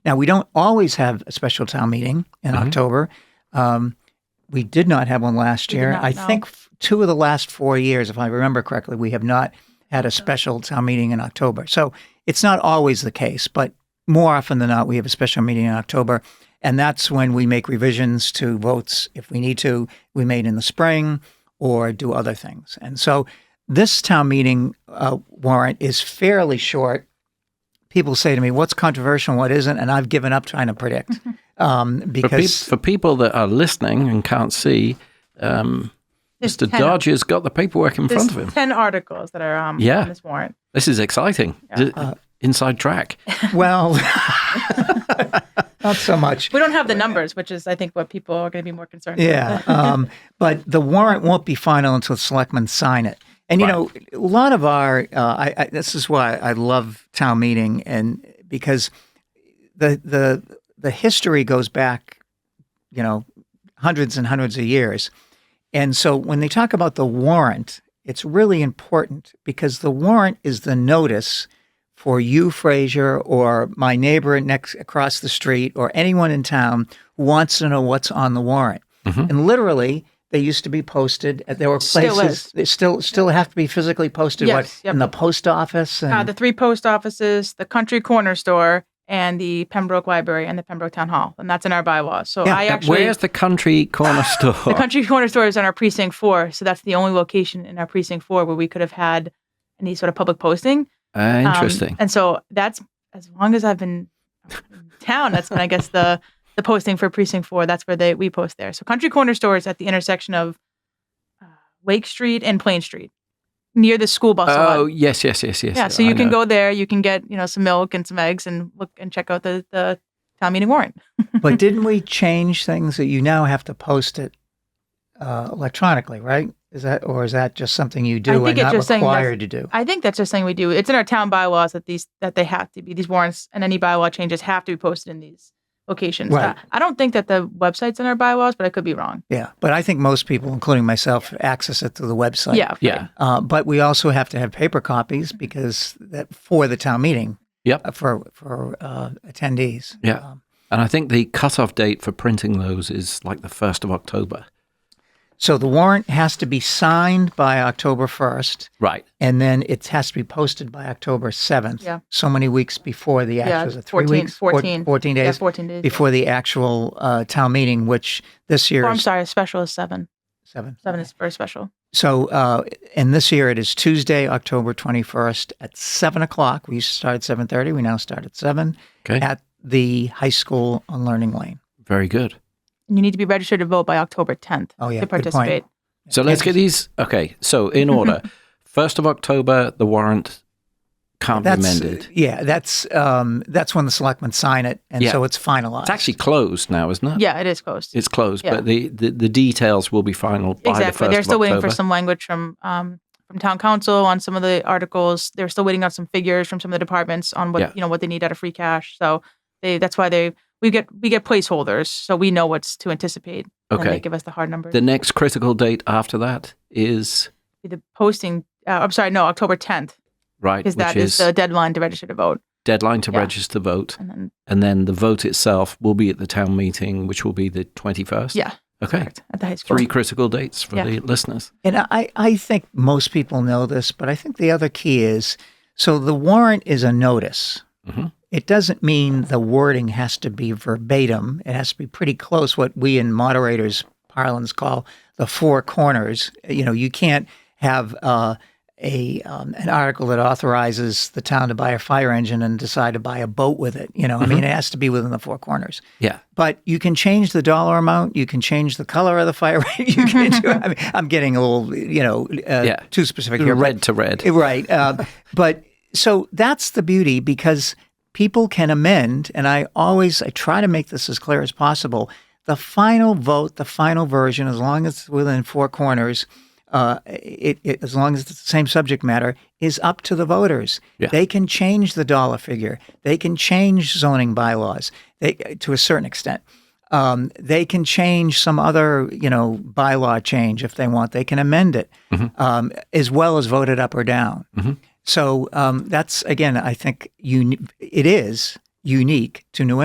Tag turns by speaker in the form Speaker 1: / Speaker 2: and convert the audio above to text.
Speaker 1: Now, we don't always have a special town meeting in October. Um, we did not have one last
Speaker 2: We did
Speaker 1: year.
Speaker 2: not,
Speaker 1: I
Speaker 2: no.
Speaker 1: think f- two of the last four years, if I remember correctly, we have not had a special town meeting in October. So it's not always the case, but more often than not, we have a special meeting in October. And that's when we make revisions to votes if we need to, we made in the spring or do other things. And so this town meeting uh, warrant is fairly short people say to me, "What's controversial? and What isn't?" And I've given up trying to predict um,
Speaker 3: For, peop
Speaker 1: because
Speaker 3: for people that are listening and can't see, um,
Speaker 2: There's
Speaker 3: Mr.
Speaker 2: 10
Speaker 3: Dodger's got the paperwork in
Speaker 2: There's
Speaker 3: front of him.
Speaker 2: ten articles that are um,
Speaker 3: Yeah.
Speaker 2: on this warrant.
Speaker 3: This is exciting. D-
Speaker 2: Uh,
Speaker 3: Inside track.
Speaker 1: well, not so much.
Speaker 2: We don't have the numbers, which is I think what people are going to be more concerned.
Speaker 1: Yeah, um, but the warrant won't be final until the selectmen sign it. And you know, a lot of our uh, I, I, this is why I love town meeting, and because the the the history goes back, you know, hundreds and hundreds of years. And so when they talk about the warrant, it's really important because the warrant is the notice for you, Frazier, or my neighbor next across the street, or anyone in town who wants to know what's on the warrant. And literally, they used to be posted. There were
Speaker 2: Still
Speaker 1: places
Speaker 2: is.
Speaker 1: they still still have to be physically posted. what
Speaker 2: Yes, yep.
Speaker 1: in the post office and
Speaker 2: Uh, the three post offices, the country corner store, and the Pembroke Library and the Pembroke Town Hall, and that's in our bylaws. So
Speaker 1: Yeah,
Speaker 2: I
Speaker 1: that-
Speaker 2: actually
Speaker 3: Where's the country corner store?
Speaker 2: the country corner store is on our precinct four, so that's the only location in our precinct four where we could have had any sort of public posting.
Speaker 3: Ah,
Speaker 2: Um,
Speaker 3: interesting.
Speaker 2: and so that's as long as I've been in town, that's been, I guess, the the posting for precinct four. That's where they we post there. So Country Corner Store is at the intersection of uh, Lake Street and Plain Street, near the school bus. lot.
Speaker 3: oh, yes, yes, yes, yes.
Speaker 2: yeah. So
Speaker 3: I
Speaker 2: you can
Speaker 3: know.
Speaker 2: go there. You can get you know some milk and some eggs and look and check out the the town meeting warrant.
Speaker 1: but didn't we change things that you now have to post it uh, electronically, right? Is that or is that just something you do
Speaker 2: think
Speaker 1: and
Speaker 2: it's
Speaker 1: not
Speaker 2: just saying that's-
Speaker 1: required to do?
Speaker 2: I think that's just something we do. It's in our town bylaws that these that they have to be these warrants and any bylaw changes have to be posted in these locations.
Speaker 1: Right.
Speaker 2: Uh, I don't think that the website's in our bylaws, but I could be wrong.
Speaker 1: Yeah, but I think most people, including myself, access it through the website.
Speaker 2: yeah.
Speaker 3: Yeah.
Speaker 1: Uh, but we also have to have paper copies because that for the town meeting
Speaker 3: Yep.
Speaker 1: uh, for for uh, attendees.
Speaker 3: Yeah.
Speaker 1: Um,
Speaker 3: And I think the cutoff date for printing those is like the 1st of October.
Speaker 1: so the warrant has to be signed by October first,
Speaker 3: Right.
Speaker 1: and then it has to be posted by October seventh.
Speaker 2: Yeah.
Speaker 1: So many weeks before the
Speaker 2: Yeah,
Speaker 1: actual is it three
Speaker 2: 14,
Speaker 1: weeks, Four-
Speaker 2: 14.
Speaker 1: fourteen days.
Speaker 2: Yeah, 14 days.
Speaker 1: before the actual uh, town meeting, which this year
Speaker 2: Oh, I'm
Speaker 1: is
Speaker 2: sorry. Special is seven.
Speaker 1: seven.
Speaker 2: Seven is very special.
Speaker 1: So, uh, and this year it is Tuesday, October twenty first at seven o'clock. We used to start at seven thirty. We now start at seven
Speaker 3: Okay.
Speaker 1: at the high school on Learning Lane.
Speaker 3: Very good.
Speaker 2: And you need to be registered to vote by October 10th
Speaker 1: Oh, yeah,
Speaker 2: to
Speaker 1: good point.
Speaker 2: participate.
Speaker 3: So let's get these. Okay. So in order 1st of October, the warrant can't be amended.
Speaker 1: yeah, that's um, that's when the selectmen sign it, and
Speaker 3: Yeah.
Speaker 1: so it's finalized.
Speaker 3: It's actually closed now, isn't it?
Speaker 2: Yeah, it is closed.
Speaker 3: It's closed,
Speaker 2: Yeah.
Speaker 3: but the, the, the details will be final by the
Speaker 2: exactly.
Speaker 3: 1st
Speaker 2: They're still
Speaker 3: of
Speaker 2: waiting for
Speaker 3: October.
Speaker 2: some language from um, from town council on some of the articles. They're still waiting on some figures from some of the departments on what
Speaker 3: Yeah.
Speaker 2: you know what they need out of free cash. So they that's why they we get we get placeholders so we know what's to anticipate. And then
Speaker 3: Okay.
Speaker 2: they give us the hard numbers.
Speaker 3: The next critical date after that is
Speaker 2: the posting. Uh, I'm sorry, no, October 10th
Speaker 3: right,
Speaker 2: because
Speaker 3: which
Speaker 2: that
Speaker 3: is,
Speaker 2: is, the deadline to register to vote.
Speaker 3: deadline to
Speaker 2: yeah.
Speaker 3: register vote,
Speaker 2: And then
Speaker 3: and then the vote itself will be at the town meeting, which will be the twenty first.
Speaker 2: yeah,
Speaker 3: Okay.
Speaker 2: correct, at the high school.
Speaker 3: Three critical dates for
Speaker 2: Yeah.
Speaker 3: the listeners.
Speaker 1: And I, I think most people know this, but I think the other key is so the warrant is a notice.
Speaker 3: Mhm.
Speaker 1: It doesn't mean the wording has to be verbatim. It has to be pretty close, what we in moderators parlance call the four corners. You know, you can't have uh, a um, an article that authorizes the town to buy a fire engine and decide to buy a boat with it. You know, I mean, it has to be within the four corners
Speaker 3: Yeah.
Speaker 1: but you can change the dollar amount. You can change the color of the fire. you can do. I mean, I'm getting a little, you know, uh,
Speaker 3: Yeah.
Speaker 1: too specific here. but-
Speaker 3: Red to red.
Speaker 1: right? Uh, but so that's the beauty because people can amend, and I always I try to make this as clear as possible. The final vote, the final version, as long as it's within four corners, uh, it, it, as long as it's the same subject matter, is up to the voters.
Speaker 3: Yeah.
Speaker 1: They can change the dollar figure. They can change zoning bylaws they, to a certain extent. Um, they can change some other, you know, bylaw change if they want. They can amend it, um, as well as vote it up or down. So um, that's again, I think, uni- it is unique to New